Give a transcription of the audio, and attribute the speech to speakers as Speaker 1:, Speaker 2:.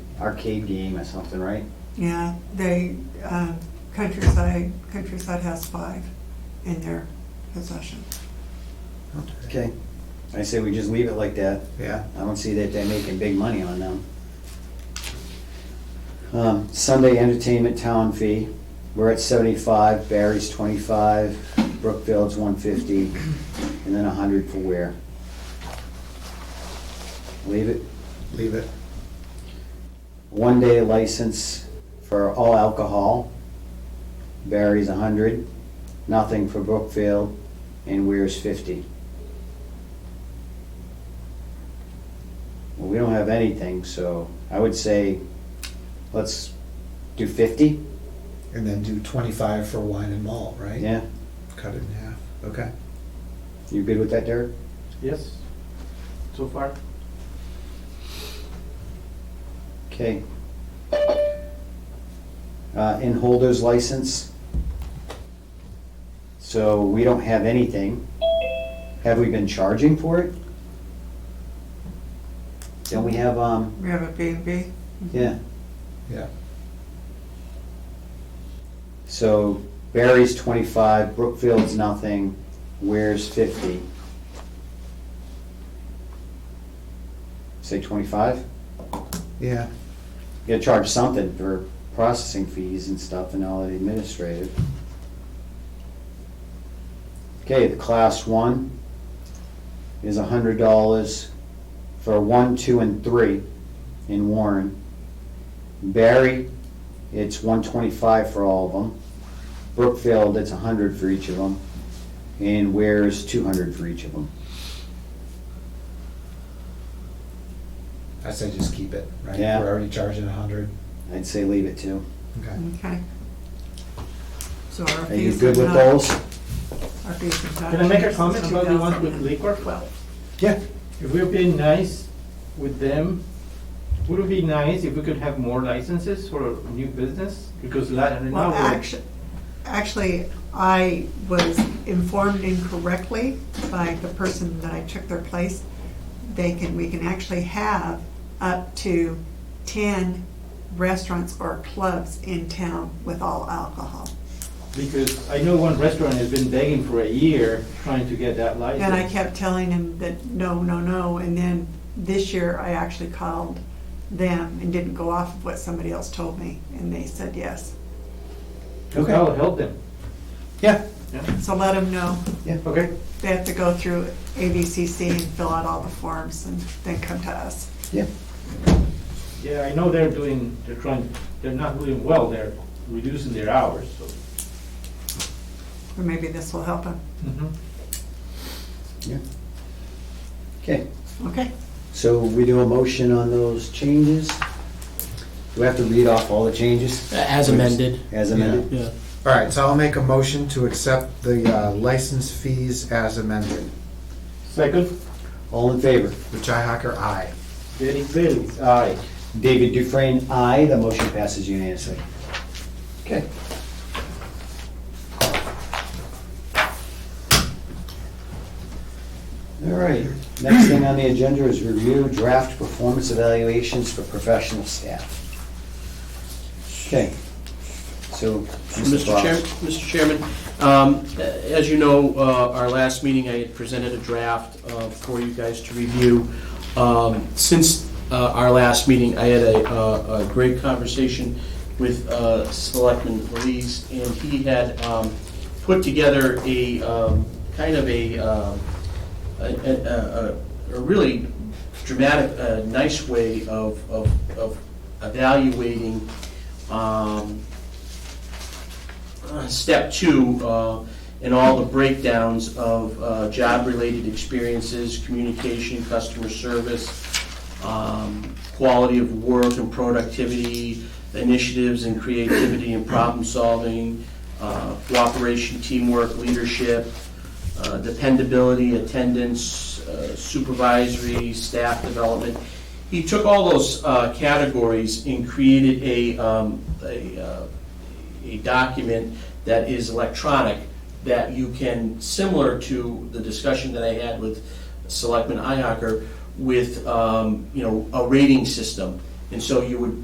Speaker 1: arcade game or something, right?
Speaker 2: Yeah, they, uh, Countryside, Countryside has five in their possession.
Speaker 1: Okay. I say we just leave it like that.
Speaker 3: Yeah,
Speaker 1: I don't see that they're making big money on them. Um, Sunday entertainment town fee, we're at seventy-five, Barry's twenty-five, Brookfield's one fifty, and then a hundred for Ware. Leave it.
Speaker 3: leave it.
Speaker 1: One-day license for all alcohol, Barry's a hundred, nothing for Brookfield, and Ware's fifty. Well, we don't have anything, so I would say, let's do fifty,
Speaker 3: And then do twenty-five for wine and malt, right?
Speaker 1: yeah?
Speaker 3: Cut it in half, okay.
Speaker 1: You good with that, Derek?
Speaker 4: Yes, so far.
Speaker 1: Okay. Uh, in holders license. So we don't have anything. Have we been charging for it? Don't we have, um,
Speaker 2: We have a B and B.
Speaker 1: yeah,
Speaker 3: Yeah,
Speaker 1: so Barry's twenty-five, Brookfield's nothing, Ware's fifty. Say twenty-five?
Speaker 3: yeah,
Speaker 1: You gotta charge something for processing fees and stuff and all the administrative. Okay, the class one is a hundred dollars for one, two, and three in Warren. Barry, it's one twenty-five for all of them. Brookfield, it's a hundred for each of them. And Ware is two hundred for each of them.
Speaker 3: I say just keep it, right?
Speaker 1: Yeah.
Speaker 3: We're already charging a hundred,
Speaker 1: I'd say leave it too.
Speaker 3: okay.
Speaker 2: Okay. So our
Speaker 1: Are you
Speaker 2: fees
Speaker 1: good
Speaker 2: and
Speaker 1: with
Speaker 2: tax-
Speaker 1: those?
Speaker 2: Our fees and
Speaker 4: Can I make a
Speaker 2: taxes
Speaker 4: comment
Speaker 2: is
Speaker 4: about the ones with
Speaker 2: 2,000.
Speaker 4: liquor?
Speaker 2: Well,
Speaker 3: Yeah,
Speaker 4: If we're being nice with them, would it be nice if we could have more licenses for new business? Because la- now
Speaker 2: well,
Speaker 4: we're.
Speaker 2: actually, actually, I was informed incorrectly by the person that I took their place. They can, we can actually have up to ten restaurants or clubs in town with all alcohol.
Speaker 4: Because I know one restaurant has been begging for a year trying to get that license.
Speaker 2: And I kept telling him that, no, no, no, and then this year I actually called them and didn't go off of what somebody else told me, and they said yes.
Speaker 4: So that'll help them.
Speaker 3: yeah,
Speaker 4: Yeah,
Speaker 2: So let them know,
Speaker 4: okay.
Speaker 2: they have to go through ABCC and fill out all the forms and then come to us.
Speaker 1: Yeah.
Speaker 4: Yeah, I know they're doing, they're trying, they're not doing well, they're reducing their hours, so.
Speaker 2: Or maybe this will help them,
Speaker 1: Yeah. Okay.
Speaker 2: okay?
Speaker 1: So we do a motion on those changes? Do we have to read off all the changes?
Speaker 5: As amended.
Speaker 1: As amended?
Speaker 5: Yeah.
Speaker 3: all right, so I'll make a motion to accept the uh, license fees as amended.
Speaker 4: Second,
Speaker 1: All in favor?
Speaker 3: Richi Hacker, aye.
Speaker 4: Derek Bailey's, aye.
Speaker 1: David Dufresne, aye. The motion passes unanimously. Okay. All right. Next thing on the agenda is review draft performance evaluations for professional staff. Okay. So, Mr.
Speaker 5: Mr. Chair,
Speaker 1: Fox.
Speaker 5: Mr. Chairman, um, a- as you know, uh, our last meeting, I had presented a draft uh, for you guys to review. Um, Since uh, our last meeting, I had a, uh, a great conversation with uh, Selectman Belize, and he had um, put together a, um, kind of a, um, a, a, a- a really dramatic, uh nice way of, of, of evaluating, um, uh, step two, uh, in all the breakdowns of, uh, job-related experiences, communication, customer service, um, quality of work and productivity, initiatives and creativity and problem-solving, uh, cooperation, teamwork, leadership, uh, dependability, attendance, uh, supervisory, staff development. He took all those uh, categories and created a, um, a, uh, a document that is electronic, that you can, similar to the discussion that I had with Selectman Ihacker, with, um, you know, a rating system. And so you would